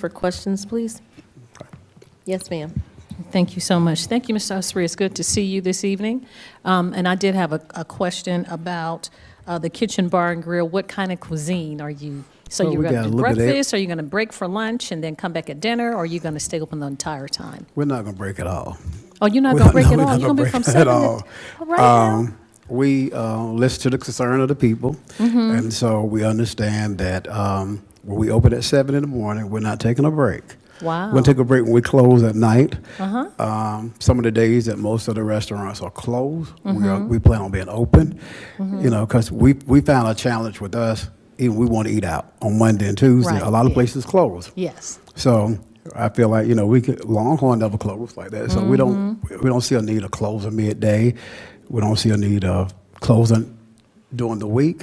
for questions, please? Yes, ma'am. Thank you so much. Thank you, Mr. Osprey. It's good to see you this evening. Um, And I did have a, a question about uh, the kitchen bar and grill. What kind of cuisine are you? So Well, you're we going got to a do little bit of- breakfast, are you going to break for lunch and then come back at dinner, or are you going to stay open the entire time? We're not going to break at all. Oh, you're not We're going to break no, at we're all? not You're going to be break from at seven to? all. All right now? Um, We uh, listen to the concern of the people, Mm-hmm. and so we understand that um, when we open at seven in the morning, we're not taking a break. We're Wow. Uh-huh. gonna take a break when we close at night. Um, Some of the days that most of the restaurants are closed, we Mm-hmm. are, we plan on being open, you know, because we, we found a challenge with us, even we want to eat out on Monday and Tuesday. Right, A lot yeah. of places close. Yes. So I feel like you know we could Longhorn never closed like that, so we don't we don't see a need of closing midday. We don't see a need of closing during the week.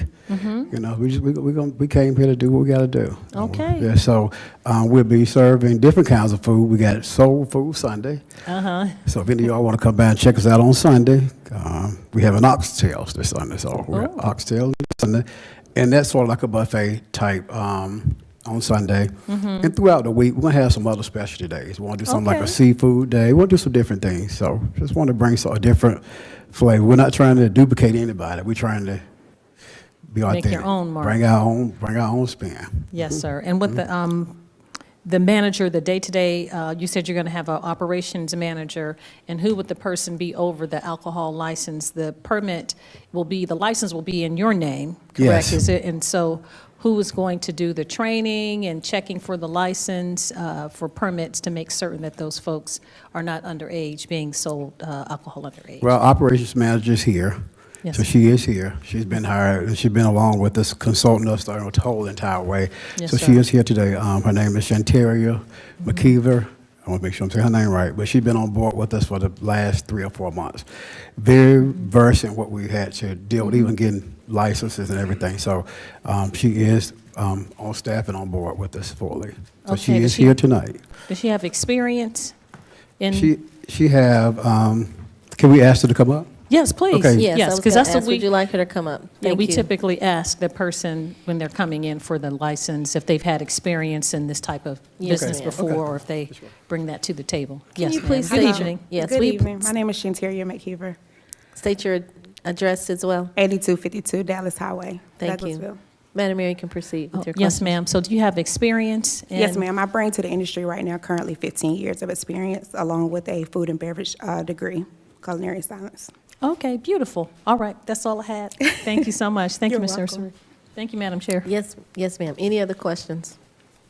You know, we just we we, gonna, we came here to do what we got to do. Okay. Yeah. So um, we'll be serving different kinds of food. We got soul food Sunday. Uh-huh. So if any of y'all want to come by and check us out on Sunday, um, we have an oxtails this Sunday. So we have Oh. oxtails this Sunday, and that's sort of like a buffet type um, on Sunday. And throughout the week, we're gonna have some other specialty days. We want to do something like a Mm-hmm. Okay. seafood day. We'll do some different things. So just want to bring sort of different flavor. We're not trying to duplicate anybody. We're trying to be Make authentic. your own mark. Bring our own. Bring our own spin. Yes, sir. And with the, um, the manager, the day-to-day, uh, you said you're going to have an operations manager, and who would the person be over the alcohol license? The permit will be, the license will be in your name, correct? Yes. Is it, and so who is going to do the training and checking for the license, uh, for permits to make certain that those folks are not underage, being sold uh, alcohol underage? Well, operations manager's here. Yes. So she is here. She's been hired, and she's been along with us, consulting us the whole entire way. Yes, So sir. Mm-hmm. she is here today. Um, her name is Shantaria McKeever. I want to make sure I'm saying her name right, but she's been on board with us for the last three or four months. Very versed in what we had to deal with, Mm-hmm. even getting licenses and everything. So um, she is um, on staff and on board with us fully. So Okay, she is she- here tonight. Does she have experience in? She, she have, um, can we ask her to come up? Yes, please. Okay. Yes, I was going because that's to the ask, week. would you like her to come up? Yeah, Thank we you. typically ask the person when they're coming in for the license if they've had experience in this type of Yes, business ma'am. before, or if they bring that to the table. Can Yes, you ma'am. please Good say- evening. Yes, Good we- evening. My name is Shantaria McKeever, State your address as well. 8252 Dallas Highway, Thank you. Douglasville. Madam Mayor, you can proceed Oh, with your question. Yes, ma'am. So do you have experience? Yes, in- ma'am. I bring to the industry right now currently 15 years of experience, along with a food and beverage uh, degree, culinary science. Okay, beautiful. All right, that's all I had. Thank you so much. Thank you, Ms. Ursula. Thank you, Madam Chair. Yes, yes, ma'am. Any other questions?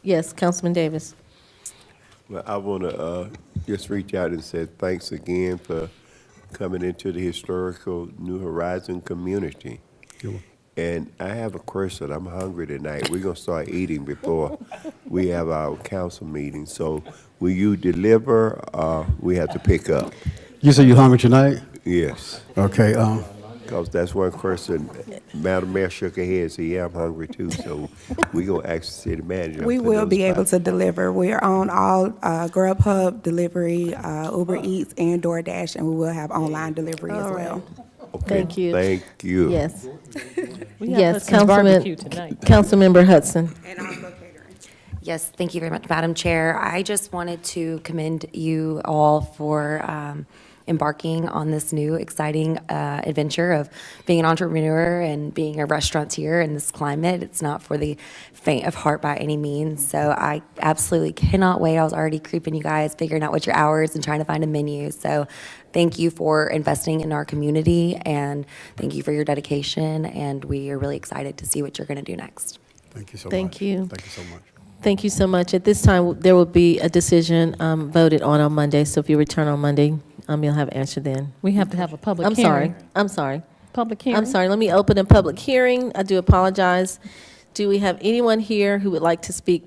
Yes, Councilman Davis. Well, I want to uh, just reach out and say thanks again for coming into the historical New Horizon community. And I have a question. I'm hungry tonight. We're gonna start eating before we have our council meeting. So will you deliver? Uh, we have to pick up. You say you hungry tonight? Yes, Okay, um, because that's one question. Madam Mayor shook her head. So yeah, I'm hungry too. So we gonna ask the city manager. We for will those be able five- to deliver. We are on all uh, Grubhub delivery, uh, Uber Eats, and DoorDash, and we will have online delivery as well. Okay, Thank you. Thank you. Yes, We have yes, Hudson's Councilman, barbecue tonight. Councilmember Hudson. And also catering. Yes, thank you very much, Madam Chair. I just wanted to commend you all for um, embarking on this new exciting uh, adventure of being an entrepreneur and being a restaurateur in this climate. It's not for the faint of heart by any means. So I absolutely cannot wait. I was already creeping you guys, figuring out what your hours and trying to find a menu. So thank you for investing in our community and thank you for your dedication. And we are really excited to see what you're going to do next. thank you so much. Thank you. Thank you so much. Thank you so much. At this time, there will be a decision um, voted on on Monday, so if you return on Monday, um, you'll have answer then. We have to have a public I'm hearing. sorry, I'm sorry. Public I'm hearing. sorry, let me open a public hearing. I do apologize. Do we have anyone here who would like to speak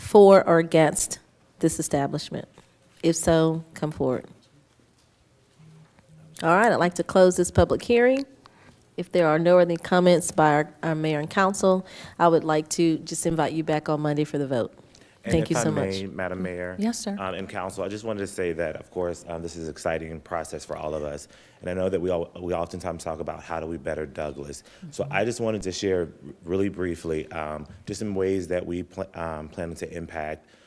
for or against this establishment? If so, come forward. All right, I'd like to close this public hearing. If there are no other comments by our, our mayor and council, I would like to just invite you back on Monday for the vote. And Thank you if I so may, much. Mm. Madam Mayor. Yes, sir. um, And council, I just wanted to say that, of course, um, this is an exciting process for all of us. And I know that we all, we oftentimes talk about how do we better Douglas? Mm-hmm. So I just wanted to share really briefly, um, just some ways that we pl- um, plan to impact